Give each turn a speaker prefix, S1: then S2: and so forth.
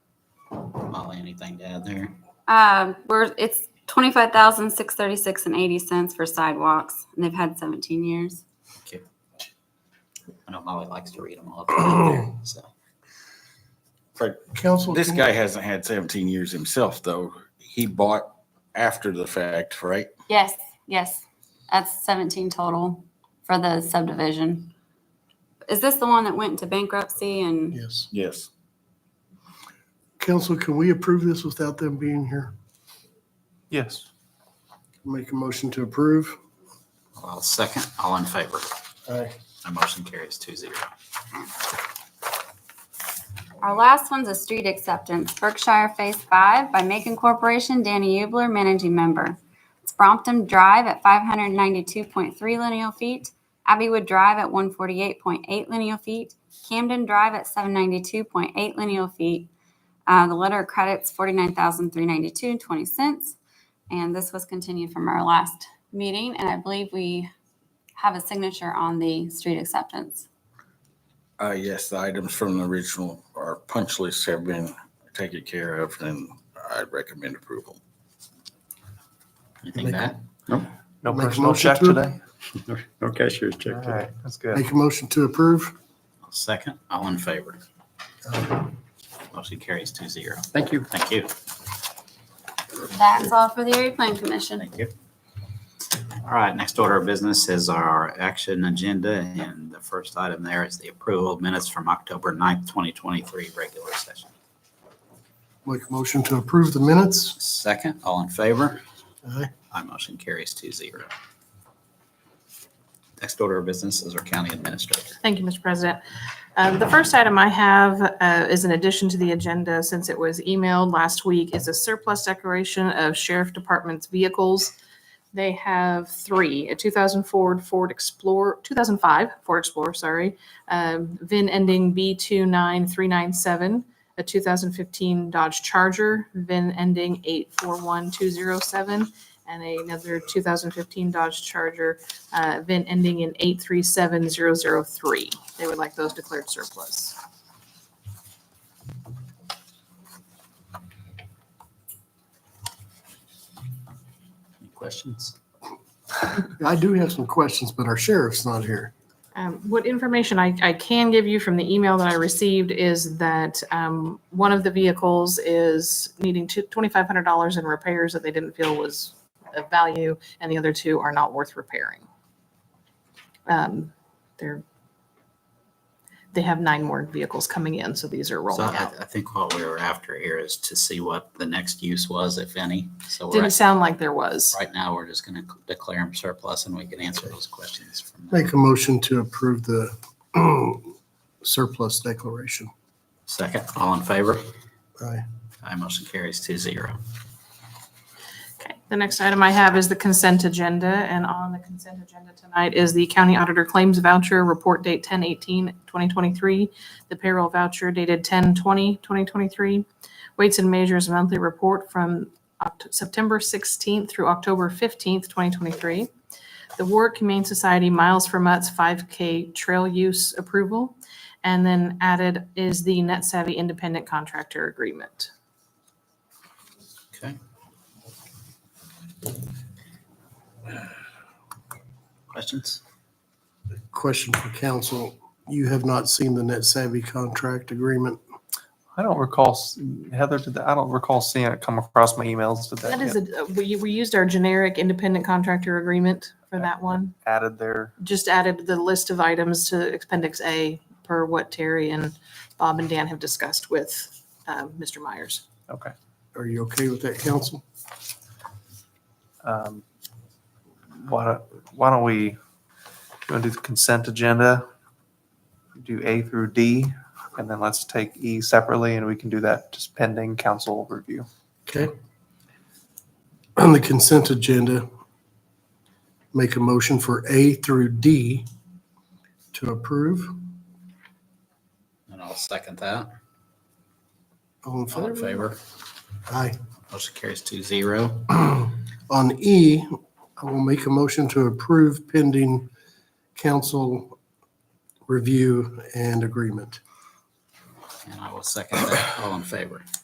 S1: anything to add there.
S2: Um, we're, it's twenty-five thousand, six thirty-six and eighty cents for sidewalks, and they've had seventeen years.
S1: I know Molly likes to read them all. up, So,
S3: Council.
S4: This guy hasn't had seventeen years himself, though. He bought after the fact, right?
S2: Yes, yes, that's seventeen total for the subdivision. Is this the one that went into bankruptcy and,
S3: Yes.
S4: Yes.
S3: Council, can we approve this without them being here?
S5: Yes.
S3: Make a motion to approve?
S1: well, second, all in favor.
S3: Aye.
S1: My motion carries two zero.
S2: our last one's a street acceptance, Berkshire Phase Five by Macon Corporation, Danny Ubler, managing member. It's Brompton Drive at five hundred ninety-two point three lineal feet, Abbeywood Drive at one forty-eight point eight lineal feet, Camden Drive at seven ninety-two point eight lineal feet. Uh, the letter of credits forty-nine thousand three ninety-two and twenty cents. And this was continued from our last meeting, and I believe we have a signature on the street acceptance.
S4: Uh, yes, the items from the original or punch list have been taken care of, and I recommend approval.
S1: Anything bad?
S5: No
S3: Make a
S5: personal
S3: motion
S5: check
S3: to-
S5: today?
S6: No cashier's
S5: All
S6: check.
S5: right, that's good.
S3: Make a motion to approve?
S1: Second, all in favor. Motion carries two zero.
S6: Thank you.
S1: Thank you.
S2: That's all for the Area Plan Commission.
S1: Thank you. All right, next order of business is our action agenda, and the first item there is the approval of minutes from October 9th, 2023, regular session.
S3: Make a motion to approve the minutes?
S1: Second, all in favor?
S3: Aye.
S1: My motion carries two zero. Next order of business is our county administrator.
S7: Thank you, Mr. President. Um, The first item I have uh, is an addition to the agenda, since it was emailed last week, is a surplus declaration of Sheriff Department's vehicles. They have three, a 2004 Ford Explorer, 2005 Ford Explorer, sorry, um, VIN ending B29397, a 2015 Dodge Charger, VIN ending 841207, and another 2015 Dodge Charger, uh, VIN ending in 837003. They would like those declared surplus.
S1: Any questions?
S3: I do have some questions, but our sheriff's not here.
S7: Um, What information I, I can give you from the email that I received is that um, one of the vehicles is needing two- $2,500 in repairs that they didn't feel was of value, and the other two are not worth repairing. Um, They're, they have nine more vehicles coming in, so these are
S1: So
S7: rolling
S1: I,
S7: out.
S1: I think what we were after here is to see what the next use was, if any. So we're,
S7: Didn't sound like there was.
S1: right now, we're just going to declare them surplus and we can answer those questions from there.
S3: Make a motion to approve the surplus declaration.
S1: Second, all in favor?
S3: Aye.
S1: Aye, motion carries two zero.
S7: Okay, the next item I have is the consent agenda, and on the consent agenda tonight is the county auditor claims voucher, report date 2023, the payroll voucher dated 2023, weights and measures monthly report from Oct- September sixteenth through October fifteenth, twenty twenty-three, the Warwick Humane Society Miles for Mutts five K trail use approval, and then added is the Net Savvy Independent Contractor Agreement.
S1: Okay. Questions?
S3: Question for council. You have not seen the net savvy contract agreement.
S5: I don't recall, s- Heather, did that, I don't recall seeing it come across my emails. Did that
S7: That is,
S5: get
S7: a uh, we, we used our generic independent contractor agreement for that one.
S5: added there?
S7: Just added the list of items to Appendix A per what Terry and Bob and Dan have discussed with uh, Mr. Myers.
S5: Okay.
S3: Are you okay with that, council?
S5: Um, Why don't, why don't we, you want to do the consent agenda? Do A through D, and then let's take E separately, and we can do that just pending council review.
S3: Okay. On the consent agenda, make a motion for A through D to approve.
S1: And I'll second that.
S3: All in
S1: All in
S3: favor?
S1: favor?
S3: Aye.
S1: Motion carries two zero.
S3: On E, I will make a motion to approve pending council review and agreement.
S1: And I will second that. All in favor?